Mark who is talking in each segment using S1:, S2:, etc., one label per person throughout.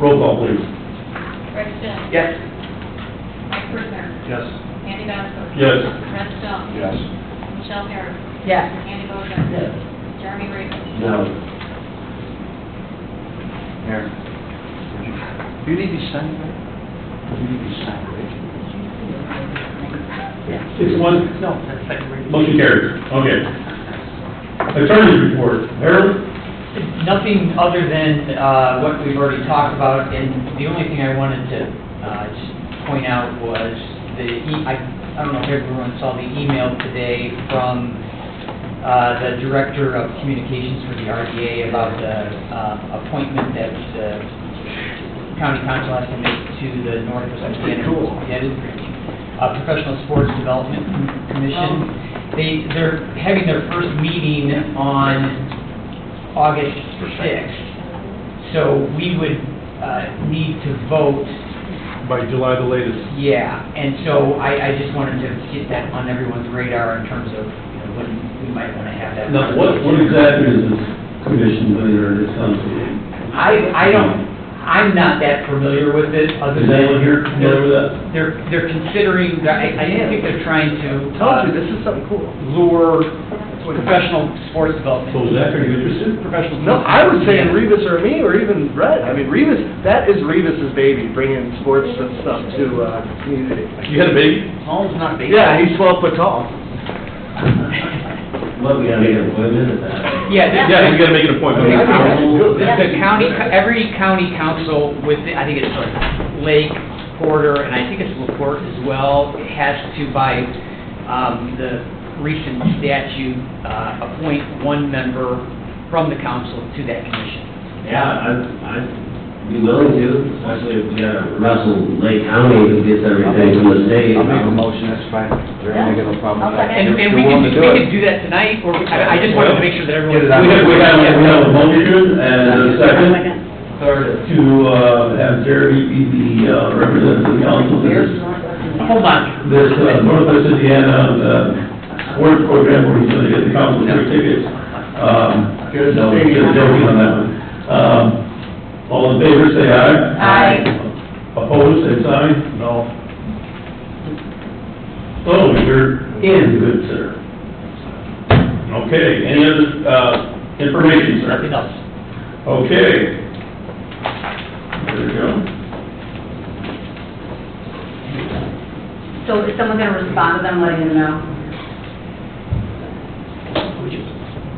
S1: Roll call, please.
S2: Rick Stone.
S3: Yes.
S2: Mike Prisner.
S1: Yes.
S2: Andy Dantos.
S1: Yes.
S2: Red Stone.
S1: Yes.
S2: Michelle Harris.
S4: Yes.
S2: Andy Bozak. Jeremy Raven.
S1: No.
S3: Mayor. Do you need to sign that? Do you need to sign that?
S1: Six one,
S3: No, that's second reading.
S1: motion carries. Okay. Attorney report, Harold?
S5: Nothing other than uh, what we've already talked about, and the only thing I wanted to uh, just point out was the, e- I I don't know if everyone saw the email today from uh, the Director of Communications for the RDA about the uh, appointment that the county council has to make to the Northwest
S3: That's pretty
S5: Indiana
S3: cool.
S5: yeah, it is great. Uh, Professional Sports Development
S3: Oh.
S5: Commission. They, they're having their first meeting on August 6th. So we would uh, need to vote,
S1: By July the latest.
S5: yeah. And so I, I just wanted to get that on everyone's radar in terms of, you know, when we might want to have that.
S1: Now, what, what exactly is this commission under this council?
S5: I, I don't, I'm not that familiar with it, other
S1: Is
S5: than.
S1: anyone here familiar with that?
S5: They're, they're considering, I, I think they're trying to. uh,
S3: Told you, this is something cool.
S5: lure professional sports development.
S1: So is that pretty interesting?
S5: Professional.
S3: No, I was saying
S5: Yeah.
S3: Revis or me, or even Brett. I mean, Revis, that is Revis's baby, bringing sports and stuff to, uh, community.
S1: You had a baby?
S5: Holmes not big.
S3: Yeah, he's twelve foot tall.
S6: Well, we gotta get an appointment at that.
S5: Yeah, the-
S1: Yeah, you gotta make an appointment.
S5: Okay.
S3: Yeah.
S5: the county, every county council with, I think it's like Lake, Porter, and I think it's LaPorte as well, has to by, um, the recent statute, uh, appoint one member from the council to that commission.
S6: Yeah, I'd, I'd be willing to, especially if we gotta wrestle Lake County who gets everything from the state.
S7: I'll make a motion, that's fine. There ain't no problem with that.
S5: And, and we
S7: You're willing
S5: can, we
S7: to do it.
S5: can do that tonight, or, I I just wanted to make sure that everyone.
S7: Get it
S1: We
S7: out.
S1: have, we have, we have a motion and a second to, uh, have Jerry be the, uh, representative of the council. for This,
S5: Hold on.
S1: this uh, Northwest Indiana, uh, sports program where he's gonna get the council their tickets. Um,
S3: Here's the
S1: no,
S3: thing.
S1: just joking on that one. Um, all in favor, say aye.
S4: Aye.
S1: Opposed, say sign. No. So you're in, good sir. Okay, any other, uh, information, sir?
S5: Nothing else.
S1: Okay. There we go.
S4: So is someone gonna respond to them, letting them know?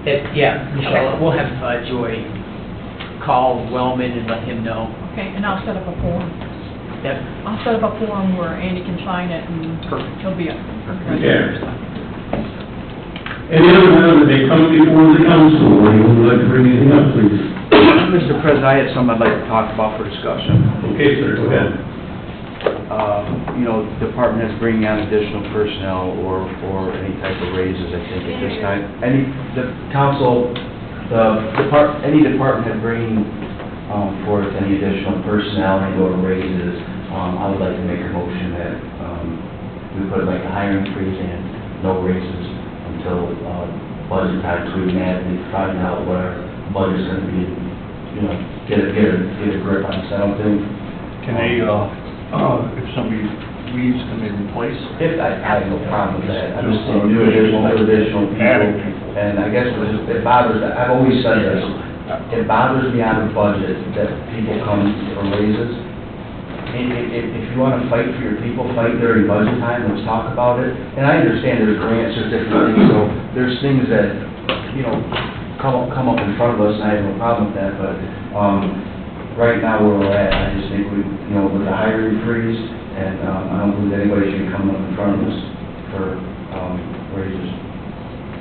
S5: It- Yeah, Michelle,
S4: Okay.
S5: we'll have uh, Joy call Wellman and let him know
S8: Okay, and I'll set up a form.
S5: that,
S8: I'll set up a form where Andy can sign it and
S5: Perfect.
S8: he'll be up.
S1: Okay. Any other matter that may come before the council, or you would like to bring anything up, please?
S7: Mr. President, I had something I'd like to talk about for discussion.
S1: Okay, sir, go ahead.
S7: Um, You know, department is bringing on additional personnel or, or any type of raises, I think, at this time. Any, the council, the depart, any department head bringing um, forth any additional personnel and or raises, um, I would like to make a motion that um, we put like a hiring freeze and no raises until uh, budget time, so we can add, we find out what our budget's gonna be, you know, get a, get a, get a grip on something.
S3: Can they, uh, uh, if somebody leaves, can they replace?
S7: If, I, I have no problem with that, I'm just saying, new additional, new additional
S3: Adding
S7: people. And I guess it just- it bothers, I've always said this, it bothers me out of budget that people come for raises. If, if, if if you wanna fight for your people, fight during budget time, let's talk about it. And I understand there's grants, there's different things, so there's things that, you know, come, up- come up in front of us, and I have no problem with that, but, um, right now where we're at, I just think we, you know, with the hiring freeze, and, um, I don't believe anybody should come up in front of us for, um, raises.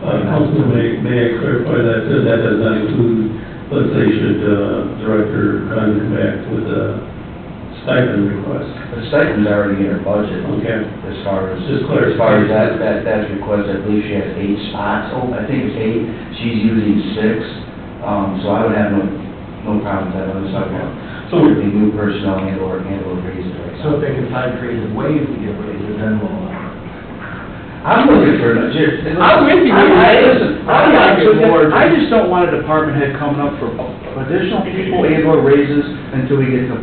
S1: Uh, council, may, may I clarify that, uh, that does not include, let's say, should, uh, Director Dunn come back with a stipend request?
S7: The stipend's already in her budget.
S1: Okay.
S7: As far as,
S1: Just clarify.
S7: as far as that, that, that's requested, I believe she has eight spots, oh, I think it's eight, she's using six, um, so I would have no, no problem with that, I'm just talking about,
S1: So-
S7: the new personnel and or, and or raises right now.
S6: So if they can find creative ways to get raises, then we'll, uh,
S7: I'm looking for, a- just-
S3: I'm with you.
S7: I, listen, I'm not
S3: I'm with you.
S7: I just don't want a department head coming up for additional people and or raises until we get to